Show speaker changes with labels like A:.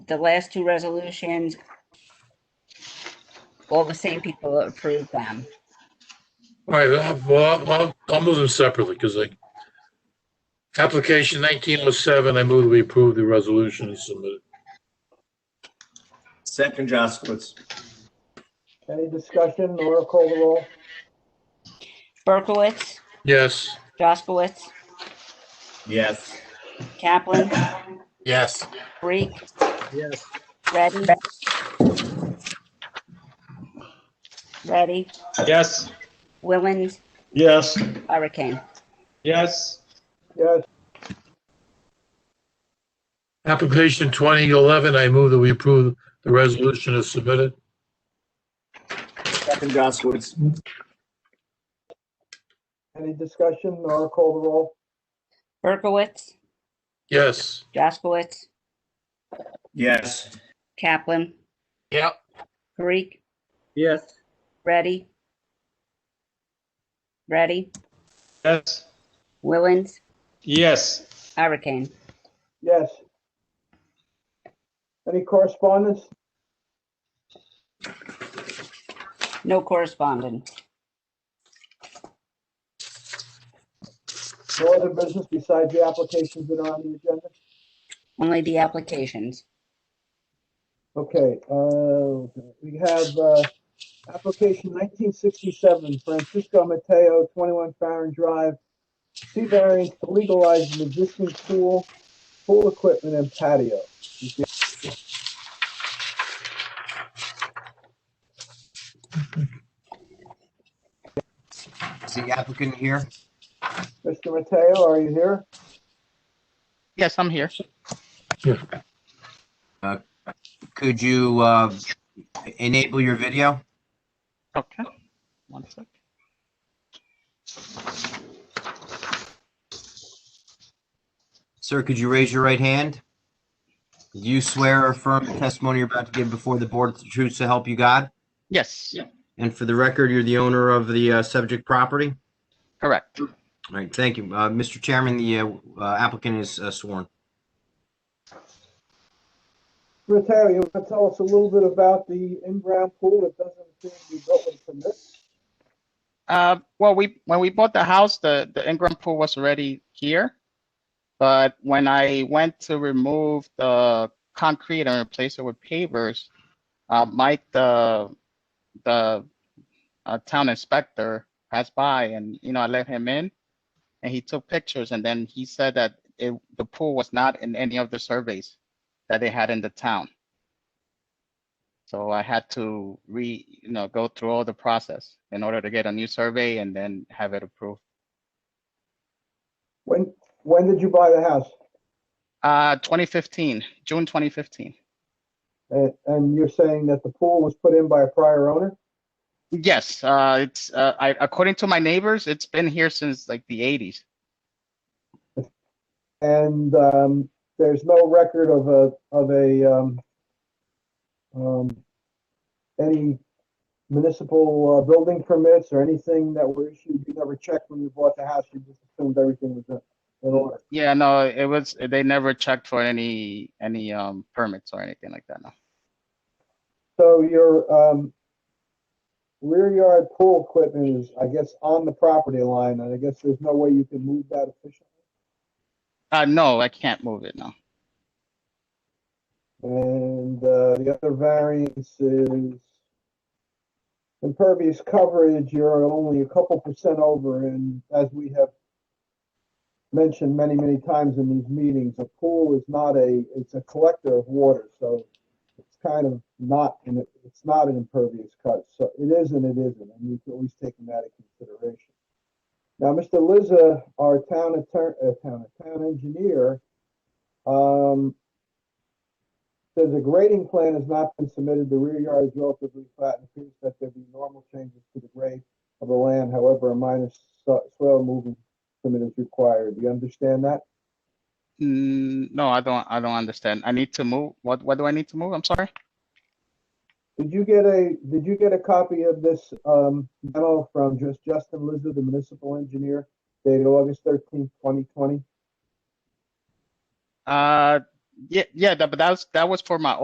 A: the last two resolutions, all the same people approved them.
B: All right, I'll- well, I'll, I'll move them separately because like application nineteen oh seven, I move that we approve the resolution as submitted.
C: Second, Jaskowitz.
D: Any discussion? Laura call the roll.
A: Berkowitz,
B: Yes,
A: Jaskowitz,
C: Yes.
A: Kaplan,
E: yes,
A: Reek,
D: Yes.
A: Ready. Ready,
F: Yes.
A: Willens,
F: Yes.
A: Hurricane.
F: Yes.
D: Yes,
B: application twenty eleven, I move that we approve the resolution as submitted.
C: Second, Jaskowitz.
D: any discussion? Laura call the roll.
A: Berkowitz,
B: Yes,
A: Jaskowitz,
C: Yes.
A: Kaplan,
E: yep,
A: Reek,
D: Yes.
A: Ready. Ready,
F: Yes.
A: Willens,
F: Yes.
A: Hurricane.
D: Yes. Any correspondence?
A: No correspondence.
D: No other business besides the applications that are on the agenda?
A: Only the applications.
D: Okay, uh, we have, uh, application nineteen sixty-seven, Francisco Mateo, twenty-one Farron Drive. C variance to legalize an existing pool, pool equipment and patio.
E: is the applicant here?
D: Mr. Mateo, are you here?
G: Yes, I'm here.
E: Could you uh, enable your video?
G: Okay. One sec.
E: Sir, could you raise your right hand? Do you swear or affirm the testimony you're about to give before the board is the truth to help you God?
G: Yes,
E: And for the record, you're the owner of the uh, subject property?
G: correct.
E: All right, thank you. Uh, Mr. Chairman, the uh, uh, applicant is uh, sworn.
D: Mr. Mateo, you want to tell us a little bit about the in-ground pool that doesn't seem to be built with permits?
G: Uh, well, we, when we bought the house, the, the in-ground pool was already here. But when I went to remove the concrete and replace it with pavers, uh, Mike, the, the, uh, town inspector passed by and, you know, I let him in. And he took pictures and then he said that it, the pool was not in any of the surveys that they had in the town. So I had to re, you know, go through all the process in order to get a new survey and then have it approved.
D: When, when did you buy the house?
G: Uh, 2015, June 2015.
D: And, and you're saying that the pool was put in by a prior owner?
G: Yes, uh, it's, uh, I, according to my neighbors, it's been here since like the 80s.
D: And, um, there's no record of a, of a, um, um, any municipal, uh, building permits or anything that were issued? You never checked when you bought the house? You just assumed everything was in, in order?
G: Yeah, no, it was, they never checked for any, any, um, permits or anything like that, no.
D: So your um, rear yard pool equipment is, I guess, on the property line, and I guess there's no way you can move that efficiently.
G: Uh, no, I can't move it, no.
D: And uh, the other variance is impervious coverage, you're only a couple percent over, and as we have mentioned many, many times in these meetings, a pool is not a, it's a collector of water, so it's kind of not, an it's not an impervious cut, so it is and it isn't, and we've always taken that into consideration. Now, Mr. Lizza, our town attorney, uh, town, town engineer, um, Says the grading plan has not been submitted, the rear yard is relatively flat and appears that there be normal changes to the grade of the land, however, a minor so- soil movement permit is required. Do you understand that?
G: Mm, no, I don't, I don't understand. I need to move, what, what do I need to move? I'm sorry.
D: Did you get a, did you get a copy of this, um, memo from just Justin Lizard, the municipal engineer, dated August thirteenth, twenty twenty?
G: Uh, yeah, yeah, that- but that was, that was for my